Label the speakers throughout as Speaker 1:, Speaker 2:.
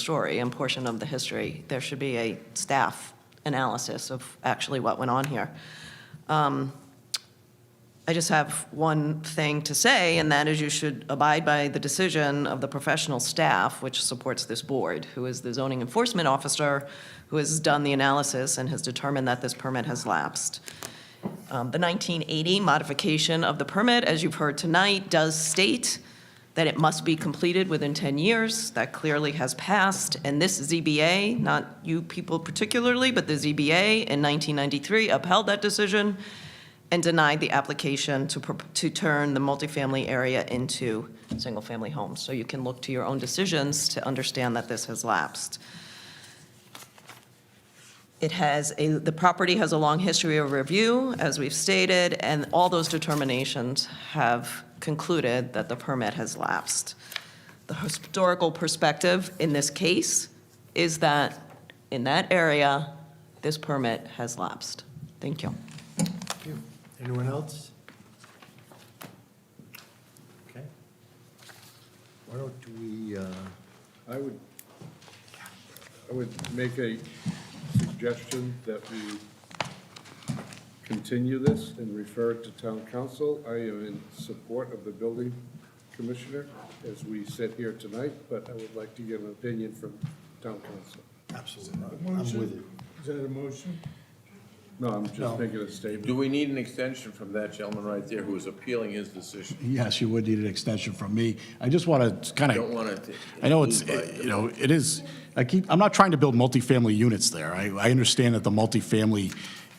Speaker 1: story and portion of the history. There should be a staff analysis of actually what went on here. Um, I just have one thing to say, and that is you should abide by the decision of the professional staff which supports this board, who is the zoning enforcement officer, who has done the analysis and has determined that this permit has lapsed. Um, The 1980 modification of the permit, as you've heard tonight, does state that it must be completed within 10 years. That clearly has passed, and this ZBA, not you people particularly, but the ZBA in 1993 upheld that decision and denied the application to, pro- to turn the multifamily area into single-family homes. So you can look to your own decisions to understand that this has lapsed. It has a, the property has a long history of review, as we've stated, and all those determinations have concluded that the permit has lapsed. The historical perspective in this case is that in that area, this permit has lapsed. Thank you.
Speaker 2: Thank you. Anyone else? Okay. Why don't we, uh,
Speaker 3: I would, I would make a suggestion that we continue this and refer it to town council. I am in support of the building commissioner as we sit here tonight, but I would like to get an opinion from town council.
Speaker 2: absolutely, I'm
Speaker 4: Motion?
Speaker 2: with you.
Speaker 4: Is that a motion?
Speaker 3: No, I'm
Speaker 2: No.
Speaker 3: just making a statement.
Speaker 5: Do we need an extension from that gentleman right there who is appealing his decision?
Speaker 4: Yes, you would need an extension from me. I just want to kind
Speaker 5: I don't
Speaker 4: of,
Speaker 5: want to.
Speaker 4: I know it's, you know, it is, I keep, I'm not trying to build multifamily units there. I, I understand that the multifamily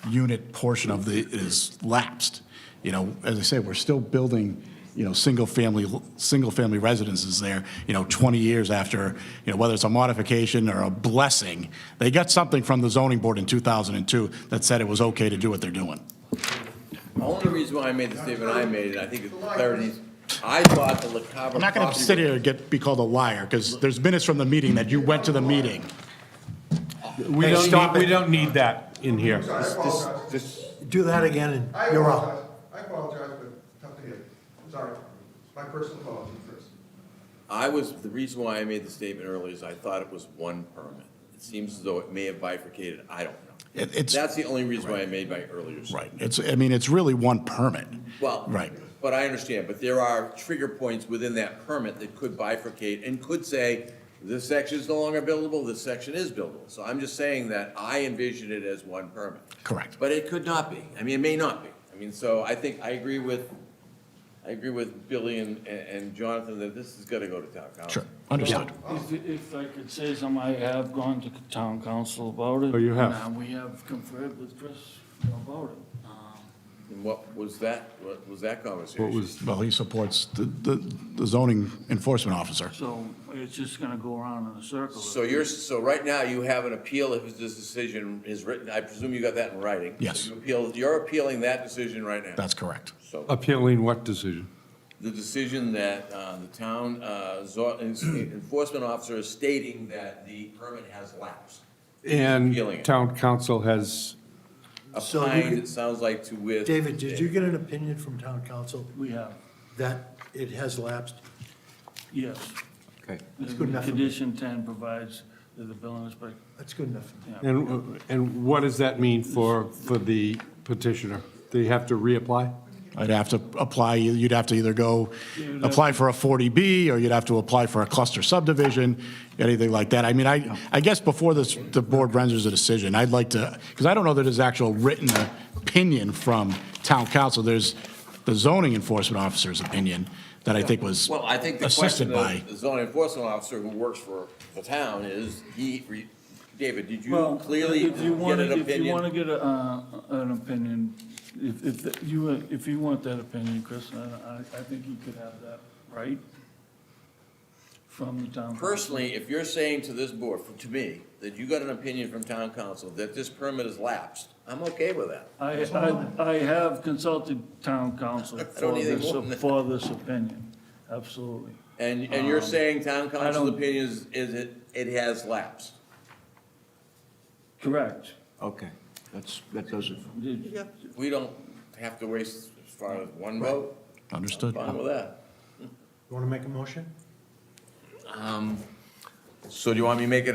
Speaker 4: unit portion of the, is lapsed. You know, as I said, we're still building, you know, single-family, single-family residences there, you know, 20 years after, you know, whether it's a modification or a blessing. They got something from the zoning board in 2002 that said it was okay to do what they're doing.
Speaker 5: The only reason why I made the statement I made, and I think it's clarity, I thought the La Cava.
Speaker 4: I'm not going to
Speaker 5: property-
Speaker 4: sit here and get, be called a liar, because there's minutes from the meeting that you went to the meeting. We
Speaker 6: We
Speaker 4: don't need-
Speaker 6: don't, need- we don't need that in here.
Speaker 2: Do that again, and
Speaker 7: I
Speaker 2: you're up.
Speaker 7: apologize, I apologize, but tough to hear. Sorry, my personal apology first.
Speaker 5: I was, the reason why I made the statement earlier is I thought it was one permit. It seems as though it may have bifurcated, I don't know.
Speaker 4: It- It's,
Speaker 5: That's the only reason why I made my earlier statement.
Speaker 4: right, it's, I mean, it's really one permit.
Speaker 5: Well.
Speaker 4: Right.
Speaker 5: But I understand, but there are trigger points within that permit that could bifurcate and could say, this section is no longer buildable, this section is buildable. So I'm just saying that I envision it as one permit.
Speaker 4: Correct.
Speaker 5: But it could not be. I mean, it may not be. I mean, so I think, I agree with, I agree with Billy and, and Jonathan that this has got to go to town council.
Speaker 4: Sure, understood.
Speaker 8: If, if I could say something, I have gone to town council about it.
Speaker 6: Oh, you have?
Speaker 8: And uh, we have conferred with Chris about it.
Speaker 5: Uh-huh.
Speaker 8: Um,
Speaker 5: And what was that, what was that conversation?
Speaker 6: What was,
Speaker 4: Well, he supports the, the the zoning enforcement officer.
Speaker 8: So it's just gonna go around in a circle.
Speaker 5: So you're, so right now you have an appeal if this decision is written, I presume you got that in writing?
Speaker 4: Yes.
Speaker 5: You appeal, you're appealing that decision right now?
Speaker 4: That's correct.
Speaker 5: So,
Speaker 6: appealing what decision?
Speaker 5: the decision that uh, the town uh, zo- enforcement officer is stating that the permit has lapsed. Appealing
Speaker 6: And
Speaker 5: it.
Speaker 6: town council has,
Speaker 2: So you
Speaker 5: Applied,
Speaker 2: could-
Speaker 5: it sounds like to with.
Speaker 2: David, did you get an opinion from town council
Speaker 8: We have,
Speaker 2: that it has lapsed?
Speaker 8: yes.
Speaker 6: Okay.
Speaker 2: That's good enough for me.
Speaker 8: Condition ten provides that the building inspector,
Speaker 2: That's good enough.
Speaker 8: yeah,
Speaker 6: and, and what does that mean for, for the petitioner? They have to reapply?
Speaker 4: I'd have to apply, you'd have to either go, apply for a 40B, or you'd have to apply for a cluster subdivision, anything like that. I mean, I, I guess before this, the board renders a decision, I'd like to, because I don't know that there's actual written opinion from town council. There's the zoning enforcement officer's opinion that I think was
Speaker 5: Well, I think the
Speaker 4: assisted
Speaker 5: question
Speaker 4: by.
Speaker 5: of the zoning enforcement officer who works for the town is, he, re- David, did
Speaker 8: Well,
Speaker 5: you clearly
Speaker 8: if you
Speaker 5: get
Speaker 8: wanna-
Speaker 5: an
Speaker 8: If you want to
Speaker 5: opinion?
Speaker 8: get a, uh, an opinion, if, if that- you, uh, if you want that opinion, Chris, uh, I, I think you could have that, right? From the town. council.
Speaker 5: Personally, if you're saying to this board, to me, that you got an opinion from town council that this permit has lapsed, I'm okay with that.
Speaker 8: I, I, I have consulted town council for
Speaker 5: need any more than
Speaker 8: this,
Speaker 5: that.
Speaker 8: for this opinion, absolutely.
Speaker 5: And, and you're saying town council's
Speaker 8: don't-
Speaker 5: opinion is, is it, it has lapsed?
Speaker 8: Correct.
Speaker 9: Okay, that's, that does it.
Speaker 8: Did-
Speaker 5: We don't have to waste as far as one vote,
Speaker 4: Understood.
Speaker 5: fine with that.
Speaker 2: You want to make a motion?
Speaker 5: So do you want me to make a